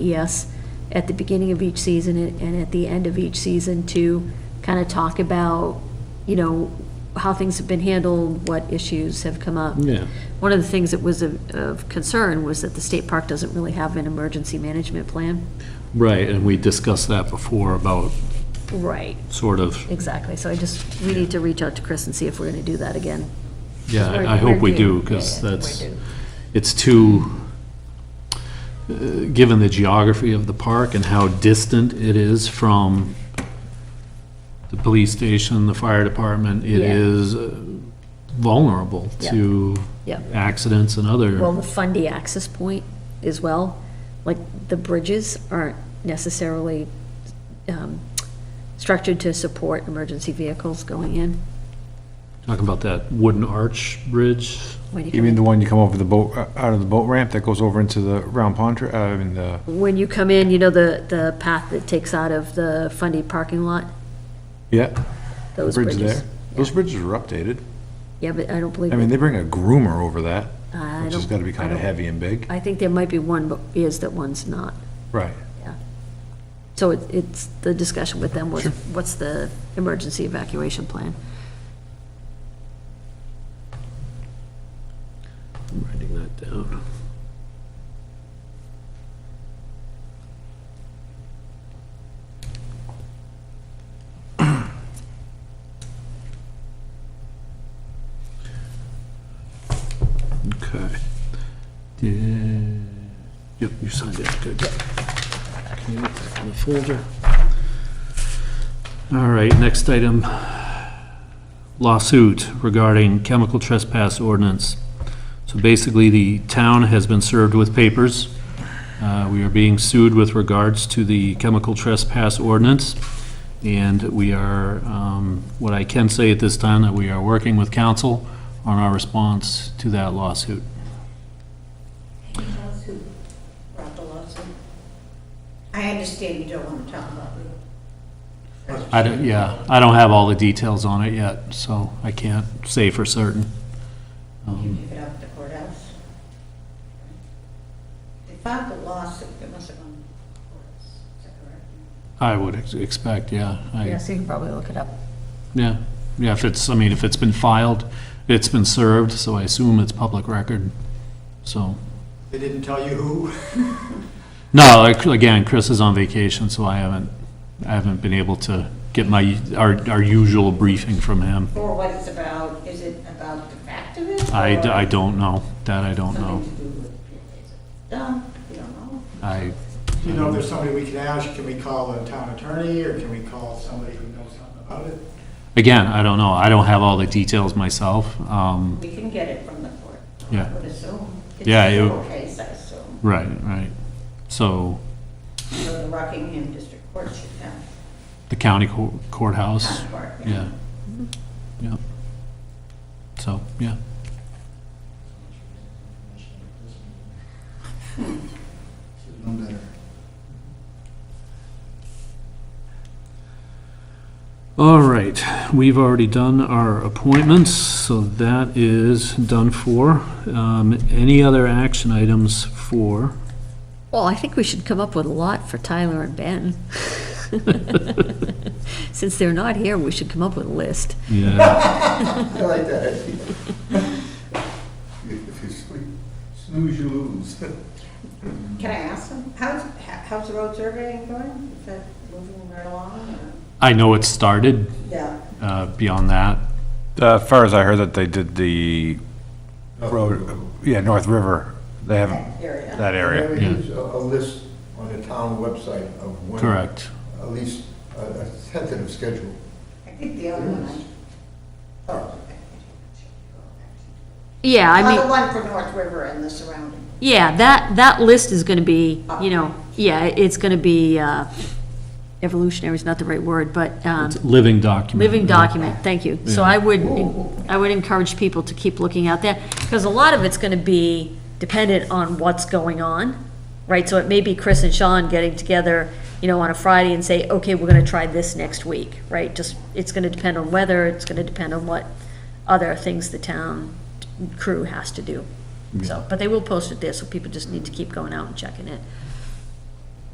ES at the beginning of each season and and at the end of each season to kind of talk about, you know, how things have been handled, what issues have come up. Yeah. One of the things that was of- of concern was that the state park doesn't really have an emergency management plan. Right, and we discussed that before about Right. sort of, Exactly, so I just, we need to reach out to Chris and see if we're going to do that again. yeah, We're- I I hope we're we due. do, Yeah, because yeah, that's, we're due. it's too, uh, given the geography of the park and how distant it is from the police station, the fire department, it Yeah. is uh, vulnerable Yeah. to Yeah. accidents and Well, other, the fundy access point as well, like the bridges aren't necessarily um, structured to support emergency vehicles going in. talking about that wooden arch bridge. When you You come- mean the one you come over the boat, uh, out of the boat ramp that goes over into the round pond, tr- uh, I mean, the, When you come in, you know, the, the path that takes out of the fundy parking lot, yeah, those bridge bridges. there. Those bridges are updated. Yeah, but I don't believe, I mean, it- they bring a groomer over that, I which has don't, gotta be kinda don't- heavy and big. I think there might be one, but is that one's not. Right. So it- it's, the discussion with them was, what's the emergency evacuation plan? Writing that down. Okay. Did- Yep, you signed it, good. Okay, back in the folder. All right, next item, lawsuit regarding chemical trespass ordinance. So basically, the town has been served with papers. Uh, We are being sued with regards to the chemical trespass ordinance, and we are, um, what I can say at this time, that we are working with council on our response to that lawsuit. brought the lawsuit? I understand you don't want to talk about it. I don't, yeah, I don't have all the details on it yet, so I can't say for certain. Um, You pick it up at the courthouse. They filed the lawsuit, it must have gone to the courts, is that correct? I would ex- expect, yeah. I- you can probably look it up. Yeah, yeah, if it's, I mean, if it's been filed, it's been served, so I assume it's public record, so. They didn't tell you who? No, like, again, Chris is on vacation, so I haven't, I haven't been able to get my, our, our usual briefing from him. Or what it's about, is it about the fact of it? I, d- or I don't know, that I don't know. Something to do with, done, you don't know. I, Do you know if there's somebody we can ask? Can we call the town attorney or can we call somebody who knows something about it? again, I don't know, I don't have all the details myself, um, We can get it from the court. Yeah. I would assume. It's Yeah, a it- civil case, I assume. right, right. So, So the Rockingham District Court should have, the county cour- courthouse, court, yeah. yeah, yeah. So, yeah. Should've known better. All right, we've already done our appointments, so that is done for. Um, Any other action items for? Well, I think we should come up with a lot for Tyler and Ben. Since they're not here, we should come up with a list. Yeah, I like that. If you sleep, snooze, you lose. Can I ask them, how's, how's the road surveying going? Is that moving right along? or- I know it started, Yeah, uh, beyond that. Uh, As far as I heard that they did the road, yeah, North River, they haven't, that area. that area. There is a a list on the town website of when. Correct. At least a a tentative schedule. I think the other one. I- oh, Yeah, I Well, the mean, one for North River and the surrounding. yeah, that, that list is gonna be, you know, yeah, it's gonna be, uh, evolutionary is not the right word, but, um, It's a Living document. living document, thank you. So I would, I would encourage people to keep looking out there, because a lot of it's gonna be dependent on what's going on, right? So it may be Chris and Sean getting together, you know, on a Friday and say, okay, we're gonna try this next week, right? Just, it's gonna depend on weather, it's gonna depend on what other things the town crew has to do. So, but they will post it there, so people just need to keep going out and checking it.